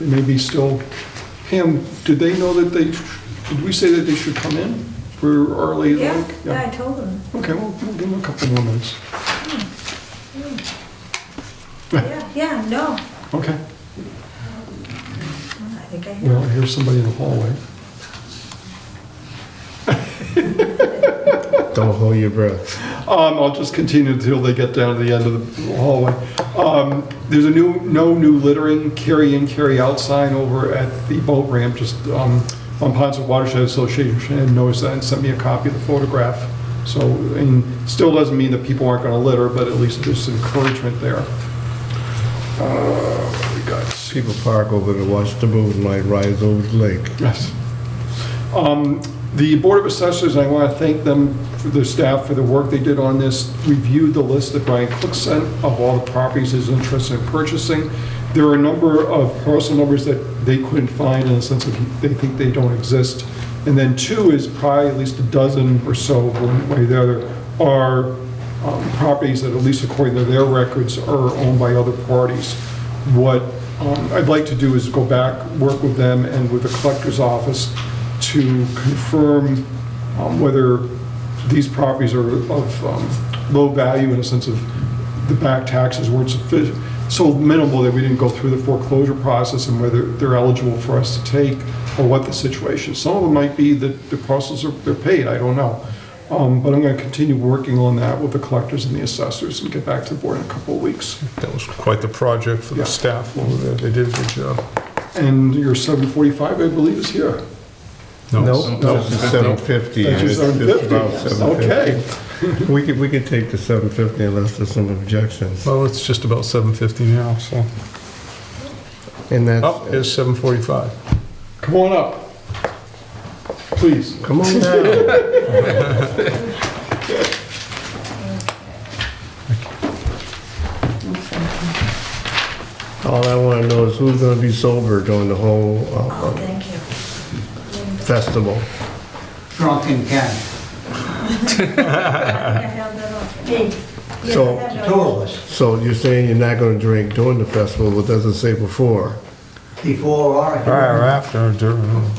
maybe still, Pam, did they know that they, did we say that they should come in for early? Yeah, yeah, I told them. Okay, well, we'll give them a couple more minutes. Yeah, yeah, no. Okay, I think I well, heard. I hear somebody in the hallway. Don't hold your breath. Um, I'll just continue until they get down to the end of the hallway. Um, there's a new, no new littering, carry in, carry out sign over at the boat ramp, just, um, on Ponset Watershed Association, and noticed that and sent me a copy of the photograph. So, and still doesn't mean that people aren't gonna litter, but at least there's encouragement there. Uh, we got People park over to watch the moonlight rise over the lake. Yes. Um, The Board of Assessors, I want to thank them, for their staff, for the work they did on this, reviewed the list that Brian Cook sent of all the properties he's interested in purchasing. There are a number of parcel numbers that they couldn't find in the sense of they think they don't exist. And then two is probably at least a dozen or so, one way or the other, are um, properties that, at least according to their records, are owned by other parties what um, I'd like to do is go back, work with them and with the collector's office to confirm um, whether these properties are of um, low value in the sense of the back taxes weren't sufficient, so minimal that we didn't go through the foreclosure process and whether they're eligible for us to take or what the situation. Some of them might be that the parcels are, they're paid, I don't know. Um, But I'm going to continue working on that with the collectors and the assessors and get back to the board in a couple of weeks. That was quite the project for Yeah. the staff over there. They did a good job. And your 745, I believe, is here. No, it's the 750. That's your It's- it's about 750. Okay. 750. We could, we could take the 750 unless there's some objections. Well, it's just about 7:50 now, so. oh, And Up that's, is 7:45. Come on up. Please. come on down. All I want to know is who's going to be sober during the whole Oh, uh, thank you. festival? drunk and can, I think I held that off. Hey, yeah, So- I the have no- two of us, So you're saying you're not going to drink during the festival, but doesn't say before? before or Prior, after. after, during.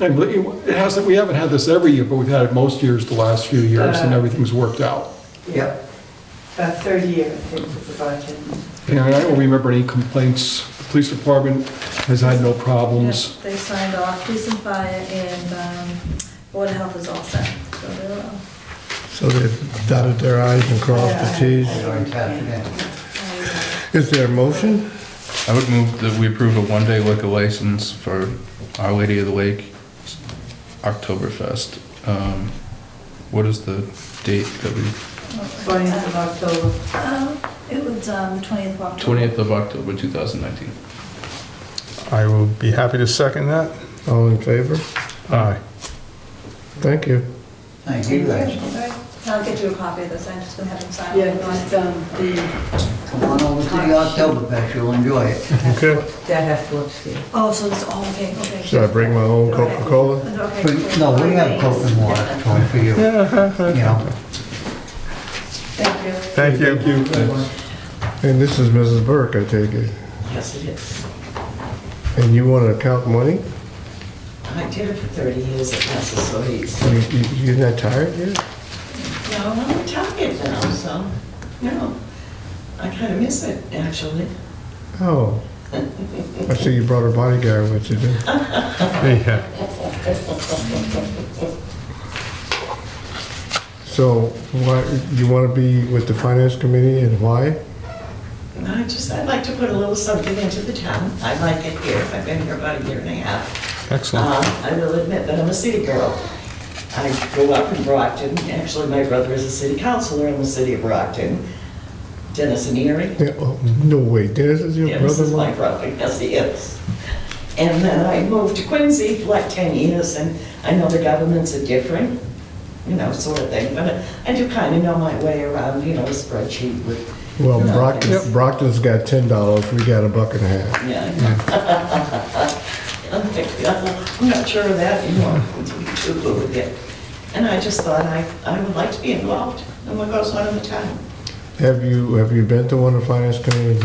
I believe- It hasn't, we haven't had this every year, but we've had it most years the last few years, and everything's worked out. Yep. About 30 years, I think, was the budget. And I don't remember any complaints. The police department has had no problems. Yeah, They signed off, police and fire and um, board of health is all set. So they're all- So they dotted their i's and crossed the t's? Or it's after that. Is there a motion? I would move that we approve a one-day liquor license for Our Lady of the Lake Oktoberfest. Um, What is the date that we, 20th of October. Um, It was um, 20th of October. 20th of October, 2019? I will be happy to second that. All in favor? Aye. Thank you. Thank you guys. Alright, I'll get you a copy of this, I'm just gonna have them sign. Yeah, it. just, um, the, Come on over to the Oktoberfest, you'll enjoy it. Okay. that has to upstairs. Oh, so it's all, okay, okay. Should I bring my own Coca-Cola? Okay, But, No, we have Coke and water Tony, for you, you know. Thank you. Thank you. Thank you. And this is Mrs. Burke, I take it. Yes, it is. And you want to count money? I did it for 30 years at Massasoit's. You- you- You're not tired yet? No, I'm tired now, so, you know, I kind of miss it, actually. Oh. I see you brought a bodyguard with you. didn't you? Yeah. So why, you want to be with the finance committee and why? And I just, I'd like to put a little something into the town. I like it here. I've been here about a year and a half. Excellent. Uh-huh. Uh, I will admit that I'm a city girl. I grew up in Brockton. Actually, my brother is a city councilor in the city of Brockton. Dennis and Erie. Yeah, oh, No way, Dennis is your Yeah, this is my brother-in-law? brother, yes, he is. And then I moved to Quincy for like 10 years, and I know the governments are different, you know, sort of thing, but I do kind of know my way around, you know, a spreadsheet with. Well, you know, Brockton, things. Brockton's got ten dollars, we got a buck and a half. Yeah. I know. I'm thinking, "Uh, I'm not sure of that anymore, It's too good with it. And I just thought I, I would like to be involved in what goes on in the town. Have you, have you been to one of the finance committee